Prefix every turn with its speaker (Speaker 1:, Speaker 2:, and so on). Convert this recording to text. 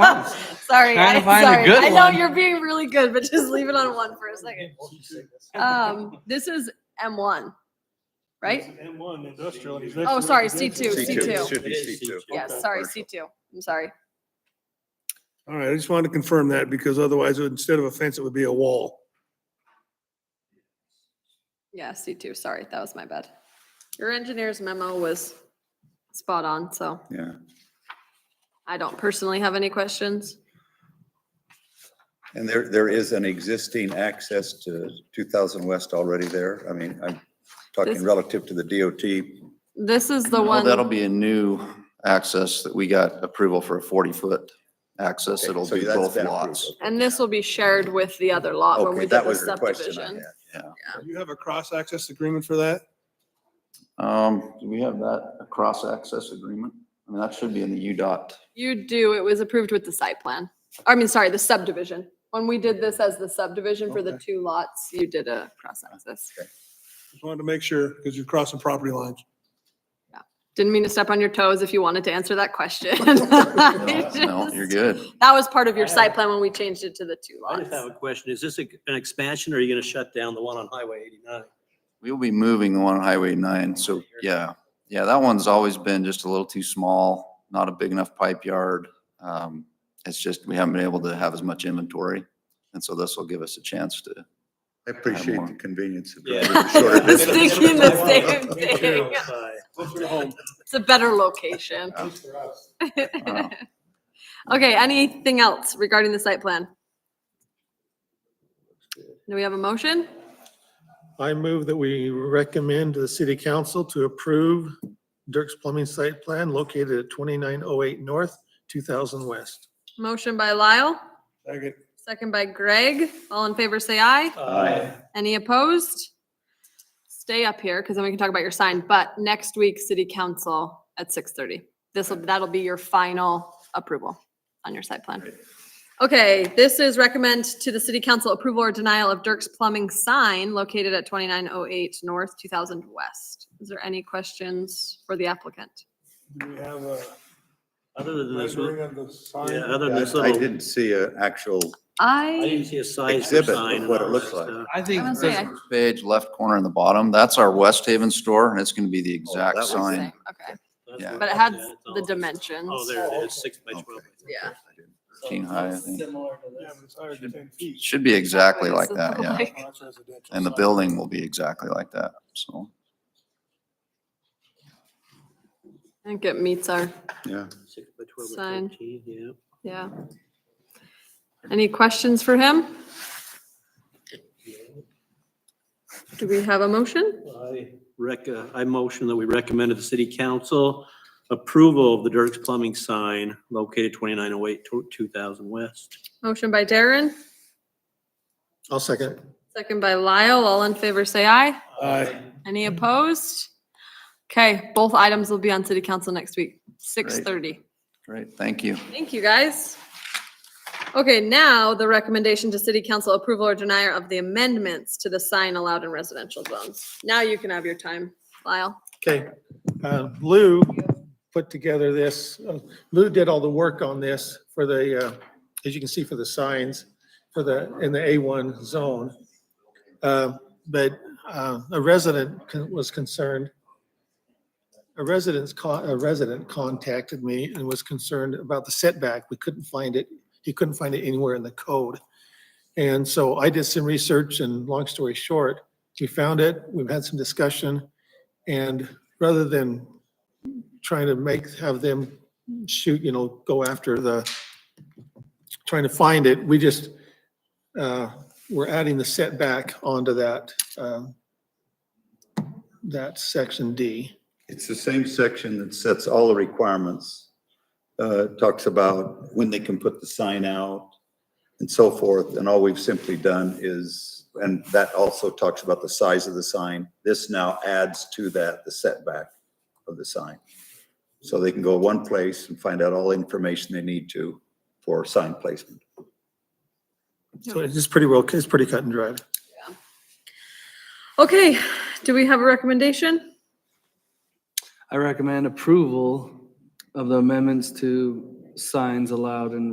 Speaker 1: Sorry,
Speaker 2: Trying to
Speaker 1: I-
Speaker 2: find a
Speaker 1: sorry.
Speaker 2: good
Speaker 1: I know
Speaker 2: one.
Speaker 1: you're being really good, but just leave it on one for a second. Um, this is M1, right?
Speaker 3: M one industrial. and it's
Speaker 1: Oh,
Speaker 3: next to
Speaker 1: sorry,
Speaker 3: residential.
Speaker 1: C2, C2.
Speaker 4: It should be
Speaker 2: It is
Speaker 4: C2.
Speaker 2: C2.
Speaker 1: Yes,
Speaker 3: Okay.
Speaker 1: sorry, C2. I'm sorry.
Speaker 3: All right, I just wanted to confirm that because otherwise, instead of a fence, it would be a wall.
Speaker 1: Yeah, C2. Sorry, that was my bad. Your engineer's memo was spot on, so
Speaker 4: Yeah,
Speaker 1: I don't personally have any questions.
Speaker 4: and there, there is an existing access to 2000 West already there. I mean, I'm
Speaker 1: This-
Speaker 4: talking relative to the DOT.
Speaker 1: This is
Speaker 4: Oh,
Speaker 1: the
Speaker 5: No,
Speaker 1: one.
Speaker 5: That'll be a new access that we got approval for a forty-foot access.
Speaker 4: Okay,
Speaker 5: It'll
Speaker 4: so
Speaker 5: do
Speaker 4: that's
Speaker 5: both
Speaker 4: been approved.
Speaker 5: lots.
Speaker 1: And this will be shared with the other lot when Oh, we
Speaker 4: Okay,
Speaker 1: did
Speaker 4: that
Speaker 1: the
Speaker 4: was the question I
Speaker 1: subdivision.
Speaker 4: had.
Speaker 3: Do you have a cross-access agreement for that?
Speaker 5: Um, do we have that, a cross-access agreement? I mean, that should be in the UDOT.
Speaker 1: You do, it was approved with the site plan. I mean, sorry, the subdivision. When we did this as the subdivision for the two lots, you did a cross access.
Speaker 3: Just wanted to make sure because you're crossing property lines.
Speaker 1: Didn't mean to step on your toes if you wanted to answer that question.
Speaker 5: No, No, you're good.
Speaker 1: That was part of your
Speaker 6: I
Speaker 1: site plan when we changed it to the two
Speaker 6: I just have
Speaker 1: lots.
Speaker 6: a question. Is this a- an expansion or are you going to shut down the one on Highway 89?
Speaker 5: We'll be moving the one on Highway nine, so, yeah. Yeah, that one's always been just a little too small, not a big enough pipe yard. Um, it's just, we haven't been able to have as much inventory. And so this will give us a chance to
Speaker 4: I appreciate the convenience of
Speaker 6: Yeah.
Speaker 4: driving a shorter
Speaker 1: I was
Speaker 4: distance.
Speaker 1: thinking the same thing.
Speaker 6: Closer to home.
Speaker 1: It's a better location.
Speaker 5: Wow.
Speaker 1: Okay, anything else regarding the site plan? Do we have a motion?
Speaker 7: I move that we recommend to the city council to approve Dirk's Plumbing Site Plan located at 2908 North, 2000 West.
Speaker 1: Motion by Lyle,
Speaker 3: Second.
Speaker 1: second by Greg. All in favor, say aye. Any opposed? Stay up here because then we can talk about your sign, but next week, city council at six thirty. This'll, that'll be your final approval on your site plan. Okay, this is recommend to the city council approval or denial of Dirk's Plumbing sign located at twenty-nine oh eight North, two thousand West. Is there any questions for the applicant?
Speaker 3: Do we have a
Speaker 6: Other than this,
Speaker 3: rendering
Speaker 6: Mm-hmm. yeah,
Speaker 3: of the sign?
Speaker 6: other than this
Speaker 4: I
Speaker 6: little,
Speaker 4: didn't see an actual,
Speaker 6: I
Speaker 1: I,
Speaker 6: didn't see a size or
Speaker 4: Exhibit of
Speaker 6: sign. and
Speaker 4: what it
Speaker 6: all
Speaker 4: looks
Speaker 6: that
Speaker 4: like.
Speaker 6: stuff.
Speaker 2: I think.
Speaker 1: I was gonna say, I-
Speaker 5: page, left corner in the bottom, that's our West Haven store, and it's gonna be the
Speaker 4: Oh, that
Speaker 5: exact
Speaker 4: was-
Speaker 5: sign.
Speaker 1: okay,
Speaker 6: That's
Speaker 5: Yeah.
Speaker 6: what
Speaker 1: but it
Speaker 6: it's-
Speaker 1: had
Speaker 6: yeah, it's all-
Speaker 1: the dimensions.
Speaker 6: Oh, there it is, six by
Speaker 4: Okay.
Speaker 6: 12.
Speaker 1: Yeah.
Speaker 5: Teen high, I think.
Speaker 8: Similar to
Speaker 3: Yeah,
Speaker 8: this.
Speaker 3: but it's higher than ten feet.
Speaker 5: Should be exactly
Speaker 1: This
Speaker 5: like
Speaker 1: is
Speaker 5: that, yeah.
Speaker 1: like-
Speaker 3: Oh, that's residential.
Speaker 5: And the building will be exactly like that, so.
Speaker 1: I think it meets our,
Speaker 4: yeah.
Speaker 6: Six by 12 or
Speaker 1: Sign.
Speaker 6: 13, yeah.
Speaker 1: yeah. Any questions for him? Do we have a motion?
Speaker 6: I rec, uh, I motion that we recommend to the city council approval of the Dirk's Plumbing sign located 2908 to 2000 West.
Speaker 1: Motion by Darren,
Speaker 7: I'll second.
Speaker 1: second by Lyle. All in favor, say aye.
Speaker 3: Aye.
Speaker 1: Any opposed? Okay, both items will be on city council next week, six thirty.
Speaker 5: Great, thank you.
Speaker 1: Thank you, guys. Okay, now the recommendation to city council approval or denier of the amendments to the sign allowed in residential zones. Now you can have your time, Lyle.
Speaker 7: Okay, uh, Lou put together this, uh, Lou did all the work on this for the, uh, as you can see for the signs, for the, in the A1 zone. Uh, But uh, a resident con- was concerned, a resident's, co- a resident contacted me and was concerned about the setback. We couldn't find it, he couldn't find it anywhere in the code. And so I did some research and long story short, we found it, we've had some discussion. And rather than trying to make, have them shoot, you know, go after the, trying to find it, we just, uh, we're adding the setback onto that, um, that section D.
Speaker 4: It's the same section that sets all the requirements, uh, talks about when they can put the sign out and so forth, and all we've simply done is, and that also talks about the size of the sign. This now adds to that the setback of the sign. So they can go one place and find out all the information they need to for sign placement.
Speaker 7: So it's just pretty well, it's pretty cut and dried.
Speaker 1: Okay, do we have a recommendation?
Speaker 8: I recommend approval of the amendments to signs allowed in